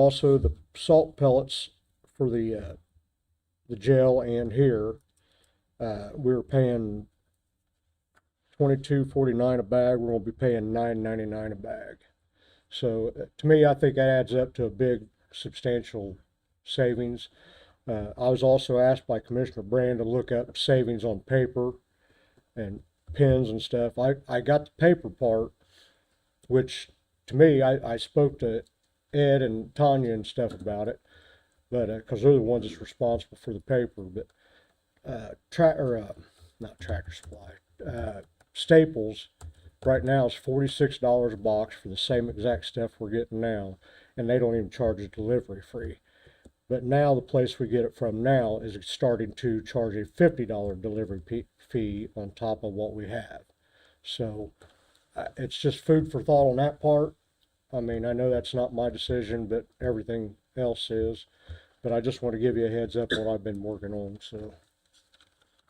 Also, the salt pellets for the, uh, the jail and here, uh, we were paying twenty-two forty-nine a bag, we're gonna be paying nine ninety-nine a bag. So uh, to me, I think that adds up to a big substantial savings. Uh, I was also asked by Commissioner Brand to look up savings on paper and pens and stuff. I, I got the paper part, which to me, I, I spoke to Ed and Tanya and stuff about it, but, uh cause they're the ones that's responsible for the paper, but, uh, tra- or, uh, not Tractor Supply, uh, Staples right now is forty-six dollars a box for the same exact stuff we're getting now, and they don't even charge a delivery fee. But now the place we get it from now is starting to charge a fifty dollar delivery pe- fee on top of what we have. So uh, it's just food for thought on that part. I mean, I know that's not my decision, but everything else is. But I just want to give you a heads up what I've been working on. So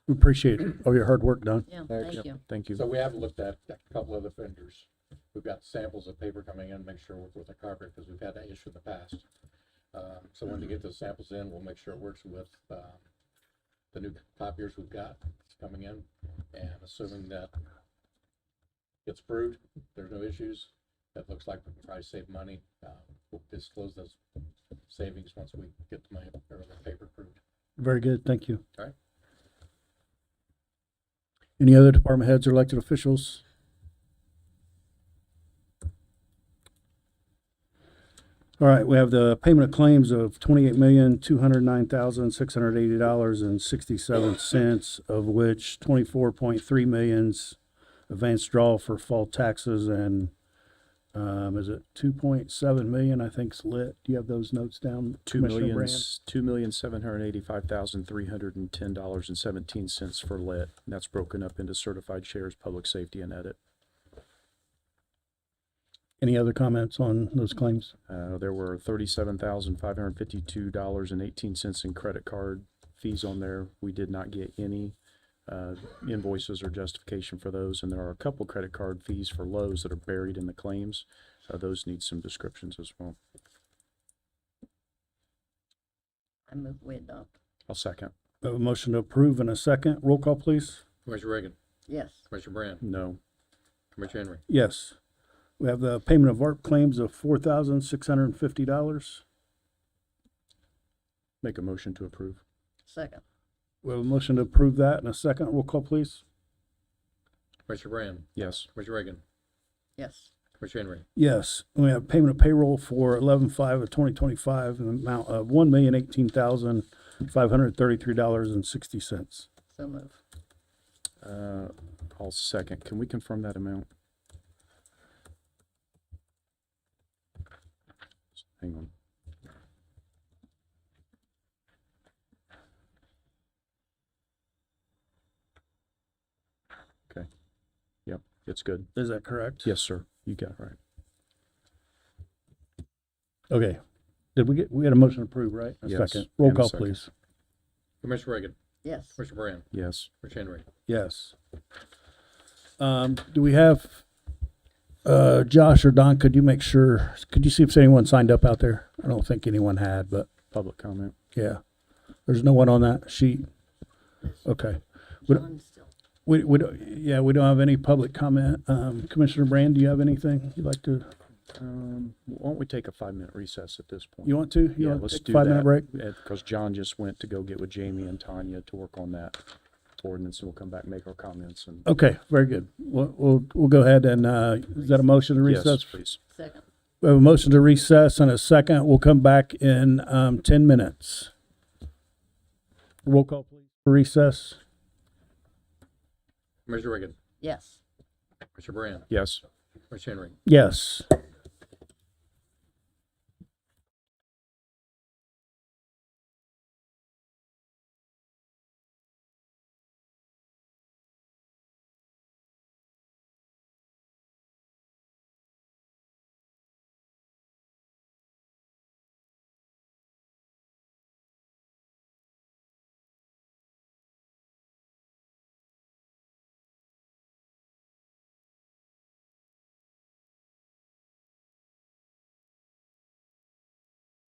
We Appreciate all your hard work, Don. Yeah, Thanks. thank you. Thank So we have looked at a couple of the vendors. We've got samples of paper coming in, make sure we're with the carpet, because we've had that issue in the past. Um, so when they get those samples in, we'll make sure it works with, um, the new copiers we've got coming in, and assuming that gets approved, there's no issues, that looks like we can probably save money. Uh, we'll disclose those savings once we get the money, or the paper approved. Very good, thank you. Okay. Any other department heads or elected officials? All right, we have the payment of claims of twenty-eight million, two hundred nine thousand, six hundred eighty dollars and sixty-seven cents, of which twenty-four point three millions advanced draw for fall taxes and, um, is it two point seven million, I think's lit. Do you have those notes down? Two Commissioner million, Brand? s- two million, seven hundred and eighty-five thousand, three hundred and ten dollars and seventeen cents for lit. And that's broken up into certified shares, public safety and edit. Any other comments on those claims? Uh, there were thirty-seven thousand, five hundred and fifty-two dollars and eighteen cents in credit card fees on there. We did not get any, uh, invoices or justification for those. And there are a couple credit card fees for Lowe's that are buried in the claims. Uh, those need some descriptions as well. I move we adopt. I'll second. I have a motion to approve in a second. Roll call, please. Commissioner Reagan, Yes, Commissioner Brand, No. Commissioner Henry, Yes. We have the payment of ARP claims of four thousand six hundred and fifty dollars. Make a motion to approve. second. We have a motion to approve that in a second. Roll call, please. Commissioner Brand, Yes. Commissioner Reagan, Yes, Commissioner Henry, Yes. We have payment of payroll for eleven five of twenty twenty-five in the amount of one million eighteen thousand five hundred thirty-three dollars and sixty cents. so move. Uh, I'll second. Can we confirm that amount? Hang on. Okay. Yep, it's good. Is that correct? Yes, sir. You got it right. Okay. Did we get, we had a motion to approve, right? A Yes, second. Roll and a call, second. please. Commissioner Reagan, Yes, Commissioner Brand, Yes. Commissioner Henry. Yes. Um, do we have, uh, Josh or Don, could you make sure, could you see if anyone signed up out there? I don't think anyone had, but Public comment. yeah. There's no one on that sheet. Okay. We don't- John still. We, we, don't- yeah, we don't have any public comment. Um, Commissioner Brand, do you have anything you'd like to, Um, why don't we take a five-minute recess at this point? you want to? You Yeah, want to let's take do a that. Five-minute break? Because John just went to go get with Jamie and Tanya to work on that ordinance, and we'll come back, and make our comments and. Okay, very good. We'll, we'll, we'll go ahead and, uh, is that a motion to Yes, recess? please. Second, We have a motion to recess and a second. We'll come back in um, 10 minutes. Roll call, please. Recess. Commissioner Reagan, yes, Commissioner Brand, Yes. Commissioner Henry, Yes.